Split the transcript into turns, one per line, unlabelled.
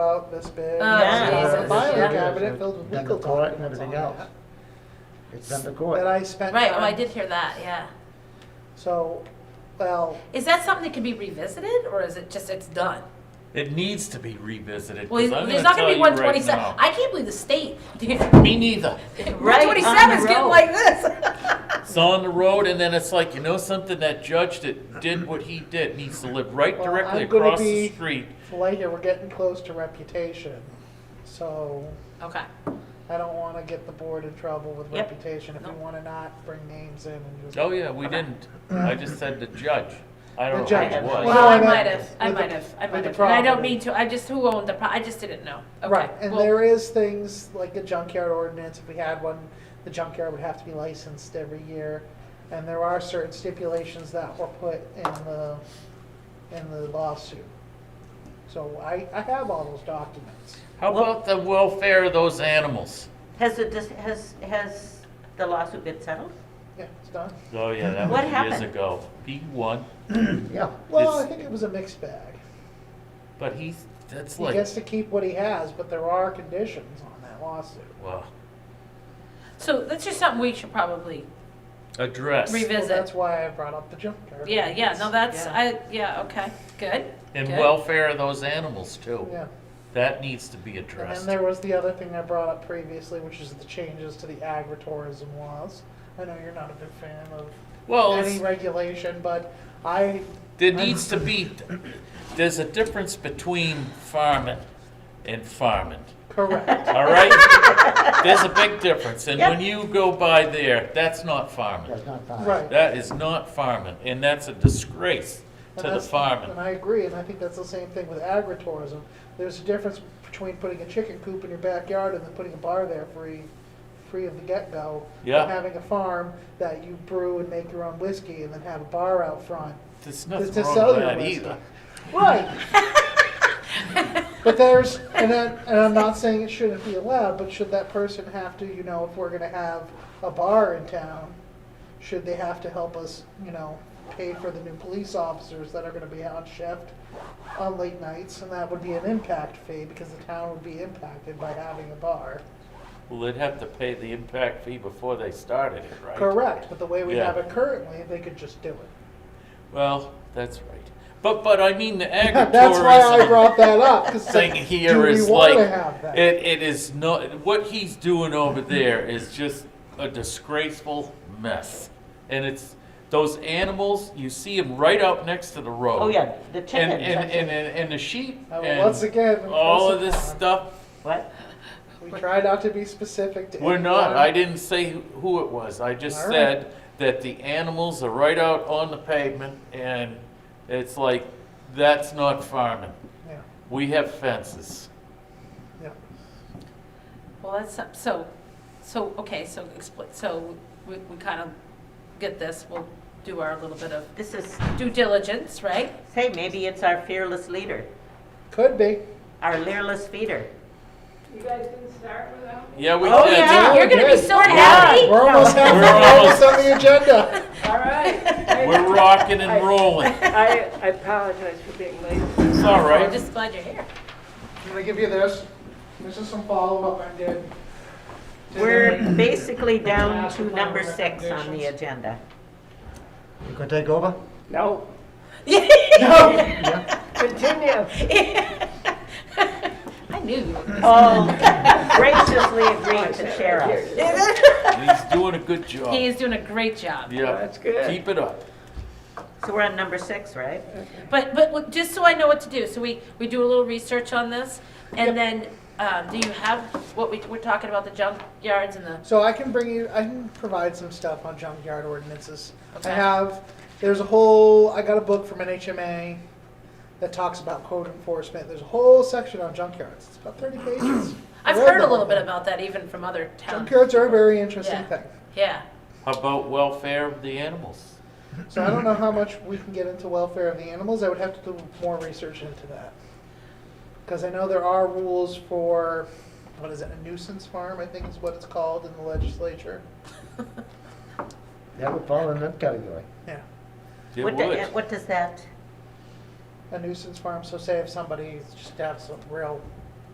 about this big.
Oh,
and
Jesus,
A filing
yeah.
cabinet filled with
Done the
legal
court and
documents
everything
on
else.
that.
It's done the
That
court.
I spent.
Right, oh, I
time-
did hear that, yeah.
So, well,
Is that something that can be revisited, or is it just, it's done?
It needs to be revisited.
Well,
'cause I'm
there's not
tell
gonna be
you right
one twenty-seven,
now.
I can't believe the state,
Me neither.
one twenty-seven's getting like this.
It's on the road, and then it's like you know something. That judge that did what he did needs to live right
Well,
directly
I'm gonna
across
be-
the street.
Flager, we're getting close to reputation. So
Okay,
I don't want to get the board in trouble with
Yep.
reputation if we
No.
want to not bring names in and just.
Oh yeah, we didn't. I just said the judge. I
The
don't know
judge.
who it was.
Well,
well, I
that-
might have, I
with the-
might have, I
with
might
the
have, and I don't
property.
mean to, I just, who owned the pro, I just didn't know, okay.
Right, and
well,
there is things like a junkyard ordinance, if we had one, the junkyard would have to be licensed every year. And there are certain stipulations that were put in the, in the lawsuit. So I, I have all those documents.
How about the welfare of those animals?
Has it, dis- has, has the lawsuit been settled?
Yeah, it's done.
Oh yeah, that
What
was years
happened?
ago. He won,
Yeah.
Well, I
It's-
think it was a mixed bag.
but he's that's
He
like
gets to keep what he has, but there are conditions on that lawsuit.
wow.
So that's just something we should probably
Address.
Revi-
Well,
Visit.
That's why I brought up the junkyard.
Yeah, yeah, no, that's,
Yeah.
I, yeah, okay, good.
and
good.
welfare of those animals too.
Yeah.
That needs to be
And then
addressed.
there was the other thing I brought up previously, which is the changes to the agritourism laws. I know you're not a big fan of
Well,
any
it's-
regulation, but I
There needs to be, there's a difference between farming and farming,
correct.
all right? There's a big difference, and when you go by there, that's not farming.
That's not fine.
Right.
That is not farming, and that's a disgrace to
And
the
that's- And
farming.
I agree, and I think that's the same thing with agritourism. There's a difference between putting a chicken coop in your backyard and then putting a bar there free, free of the get-go. and
Yeah.
Having a farm that you brew and make your own whiskey and then have a bar out front.
There's
Just
nothing
to
wrong
sell
with
your
that
whiskey.
either.
Right. But there's, and I, and I'm not saying it shouldn't be allowed, but should that person have to, you know, if we're gonna have a bar in town, should they have to help us, you know, pay for the new police officers that are gonna be on shift on late nights, and that would be an impact fee, because the town would be impacted by having a bar.
Well, they'd have to pay the impact fee before they started it, right?
Correct, but the way we
Yeah.
have it currently, they could just do it.
Well, that's right. But, but I mean, the agritourism.
That's why I brought that up, 'cause it's
thing
like,
here
do we
is
wanna
like,
have that?
it, it is not, what he's doing over there is just a disgraceful mess. And it's, those animals, you see them right out next to the road.
Oh, yeah, the
And,
chickens.
and,
that's it.
and, and and the sheep,
Uh,
and
once again,
all of
once
this
again.
stuff,
What?
We try not to be specific to.
we're not,
anyone.
I didn't say who- who it was, I just
All right.
said that the animals are right out on the pavement, and it's like, that's not farming.
Yeah,
We have fences.
yeah.
Well, that's, some- so, so, okay, so explain, so we, we kind of get this, we'll do our little bit of
This is,
due diligence, right?
say, maybe it's our fearless leader,
Could be.
our leerless feeder.
You guys didn't start without me?
Yeah, we
Oh,
did.
yeah.
You're gonna be
Good.
so
Yeah,
happy.
We're almost halfway,
We're
we're almost
almost-
on the agenda.
All right.
We're rocking and rolling.
I, I apologize for being late.
It's all
I'm
right.
just glad you're here.
I'm gonna give you this. This is some follow-up I did. to the-
We're basically down to number six on the agenda.
You gonna take over?
No,
No,
continue.
I knew you were gonna
All graciously agreed to share us.
He's doing a good job.
He is doing a great job.
yeah,
That's good.
Keep it up.
So we're on number six, right?
But, but look, just so I know what to do, so we, we do a little research on this, and then, um, do you have what we, we're talking about, the junkyards and the,
So I can bring you, I can provide some stuff on junkyard ordinances. I
Okay.
have, there's a whole, I got a book from NHMA that talks about code enforcement. There's a whole section on junkyards. It's about thirty pages.
I've
I read
heard
the
a
whole
little
thing.
bit about that even from other towns.
Junkyards are a very interesting
Yeah.
thing.
Yeah,
How about welfare of the animals?
So I don't know how much we can get into welfare of the animals. I would have to do more research into that. Because I know there are rules for, what is it, a nuisance farm, I think is what it's called in the legislature.
That would fall in that category.
Yeah,
It
What do-
would.
What does that,
a nuisance farm, so say if somebody just has some real